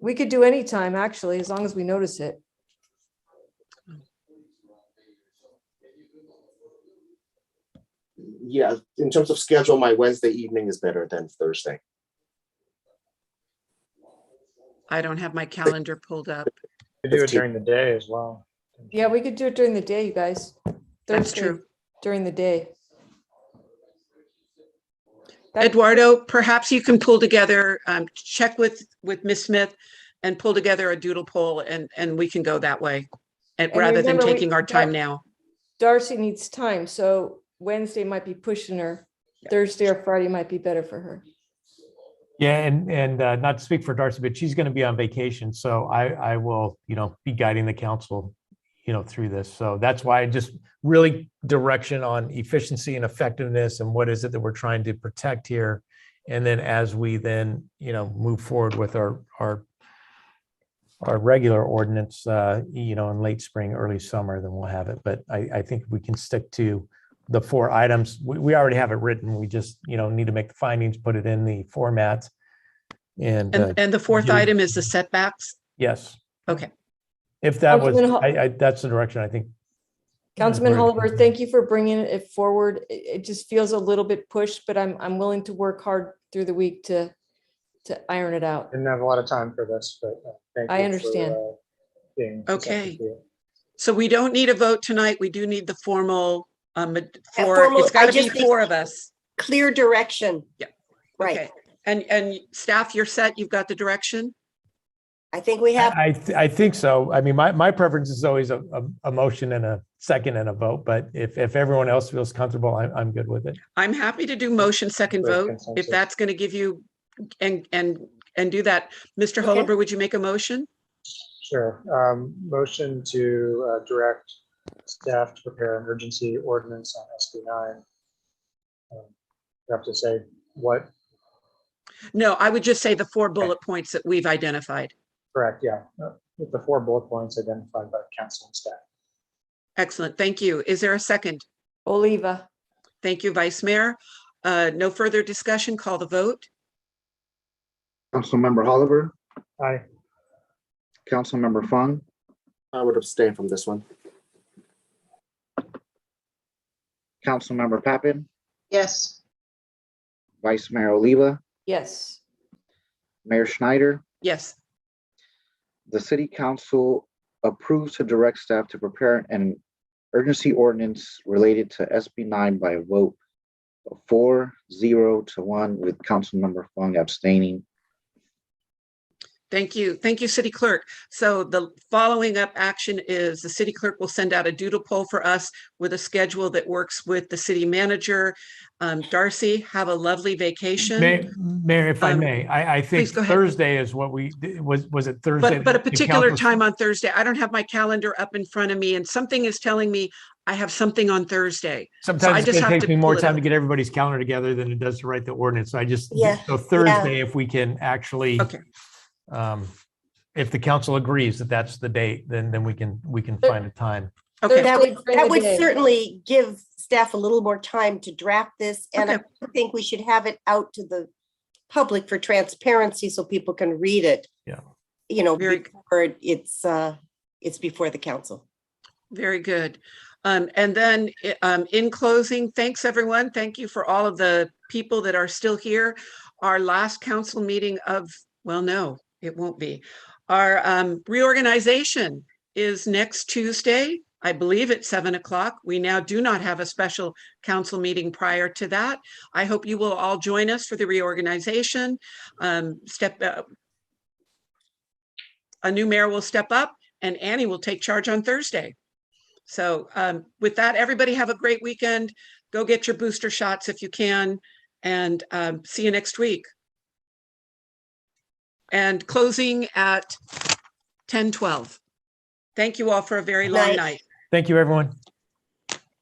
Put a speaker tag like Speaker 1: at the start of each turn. Speaker 1: We could do any time, actually, as long as we notice it.
Speaker 2: Yeah, in terms of schedule, my Wednesday evening is better than Thursday.
Speaker 3: I don't have my calendar pulled up.
Speaker 4: We do it
Speaker 2: 15.
Speaker 4: during the day as well.
Speaker 1: Yeah, we could do it during the day, you guys.
Speaker 3: That's
Speaker 1: Thursday
Speaker 3: true.
Speaker 1: During the day. That-
Speaker 3: Eduardo, perhaps you can pull together, um, check with, with Ms. Smith and pull together a doodle poll and, and we can go that way. And
Speaker 1: And
Speaker 3: rather than
Speaker 1: remember, we-
Speaker 3: taking our time now.
Speaker 1: Darcy needs time, so Wednesday might be pushing her. Thursday or Friday might be better for her.
Speaker 3: Mm-hmm.
Speaker 5: Yeah, and, and uh, not to speak for Darcy, but she's going to be on vacation, so I, I will, you know, be guiding the council, you know, through this. So that's why I just really direction on efficiency and effectiveness and what is it that we're trying to protect here? And then as we then, you know, move forward with our, our our regular ordinance, uh, you know, in late spring, early summer, then we'll have it. But I, I think we can stick to the four items. We, we already have it written. We just, you know, need to make the findings, put it in the format. And, uh,
Speaker 3: And, and the fourth
Speaker 5: you-
Speaker 4: Mm-hmm.
Speaker 3: item is the setbacks.
Speaker 5: yes.
Speaker 3: Okay.
Speaker 5: If that was,
Speaker 1: Councilman Ho-
Speaker 5: I, I, that's the direction I think.
Speaker 1: Councilman
Speaker 5: Where-
Speaker 1: Oliver, thank you for bringing it forward. It, it just feels a little bit pushed, but I'm, I'm willing to work hard through the week to, to iron it out.
Speaker 4: Didn't have a lot of time for this, but uh, thank you.
Speaker 1: I
Speaker 4: for,
Speaker 1: understand.
Speaker 4: uh, being
Speaker 3: Okay.
Speaker 4: receptive to it.
Speaker 3: So we don't need a vote tonight. We do need the formal, um, for,
Speaker 6: formal-
Speaker 3: it's gotta
Speaker 6: I
Speaker 3: be
Speaker 6: just think-
Speaker 3: four of us.
Speaker 6: clear direction.
Speaker 3: Yeah.
Speaker 6: Right.
Speaker 3: Okay. And, and staff, you're set. You've got the direction?
Speaker 6: I think we have,
Speaker 5: I, th- I think so. I mean, my, my preference is always a, a, a motion and a second and a vote, but if, if everyone else feels comfortable, I'm, I'm good with it.
Speaker 3: I'm happy to do motion second
Speaker 4: Great
Speaker 3: vote, if
Speaker 4: consensus.
Speaker 3: that's going to give you, and, and, and do that. Mr.
Speaker 6: Okay.
Speaker 3: Holber, would you make a motion?
Speaker 4: Sure. Um, Motion to uh, direct staff to prepare emergency ordinance on SB nine. Um, You have to say what,
Speaker 3: No, I would just say the four bullet points that we've identified.
Speaker 4: correct, yeah, uh, with the four bullet points identified by council and staff.
Speaker 3: Excellent, thank you. Is there a second?
Speaker 1: Oliva,
Speaker 3: Thank you, Vice Mayor. Uh, No further discussion, call the vote.
Speaker 7: Councilmember Oliver,
Speaker 4: Aye.
Speaker 7: Councilmember Fung,
Speaker 2: I would abstain from this one.
Speaker 7: Councilmember Pappen,
Speaker 8: yes,
Speaker 7: Vice Mayor Oliva,
Speaker 1: yes.
Speaker 7: Mayor Schneider.
Speaker 3: Yes,
Speaker 7: The city council approves to direct staff to prepare an urgency ordinance related to SB nine by a vote of four, zero to one with Councilmember Fung abstaining.
Speaker 3: thank you. Thank you, City Clerk. So the following up action is the City Clerk will send out a doodle poll for us with a schedule that works with the City Manager. Um, Darcy, have a lovely vacation.
Speaker 5: May- Mayor, if I
Speaker 3: Um,
Speaker 5: may, I, I think
Speaker 3: please go ahead.
Speaker 5: Thursday is what we, was, was it Thursday?
Speaker 3: But, but a
Speaker 5: that the
Speaker 3: particular
Speaker 5: council-
Speaker 3: time on Thursday, I don't have my calendar up in front of me and something is telling me I have something on Thursday. I
Speaker 5: Sometimes
Speaker 3: just
Speaker 5: it
Speaker 3: have
Speaker 5: takes
Speaker 3: to
Speaker 5: me more
Speaker 3: pull it
Speaker 5: time
Speaker 3: up.
Speaker 5: to get everybody's calendar together than it does to write the ordinance. So I just,
Speaker 6: Yeah,
Speaker 5: so Thursday, if we can actually.
Speaker 3: Okay.
Speaker 5: um, If the council agrees that that's the date, then, then we can, we can
Speaker 1: But-
Speaker 5: find a time.
Speaker 3: Uh, Okay,
Speaker 6: that
Speaker 1: Thursday
Speaker 6: would,
Speaker 1: during
Speaker 6: that
Speaker 1: the
Speaker 6: would
Speaker 1: day.
Speaker 6: certainly give staff a little more time to draft this. And I
Speaker 3: Okay.
Speaker 6: think we should have it out to the public for transparency so people can read it.
Speaker 5: Yeah.
Speaker 6: You know,
Speaker 3: Very-
Speaker 6: before it's, uh, it's before the council.
Speaker 3: very good. Um, and then, i- um, in closing, thanks everyone. Thank you for all of the people that are still here. Our last council meeting of, well, no, it won't be. Our, um, reorganization is next Tuesday, I believe at seven o'clock. We now do not have a special council meeting prior to that. I hope you will all join us for the reorganization. Um, step, uh, a new mayor will step up and Annie will take charge on Thursday. So um, with that, everybody have a great weekend. Go get your booster shots if you can and um, see you next week. And closing at 10:12. Thank you all for a very long
Speaker 6: Night.
Speaker 3: night.
Speaker 5: Thank you, everyone.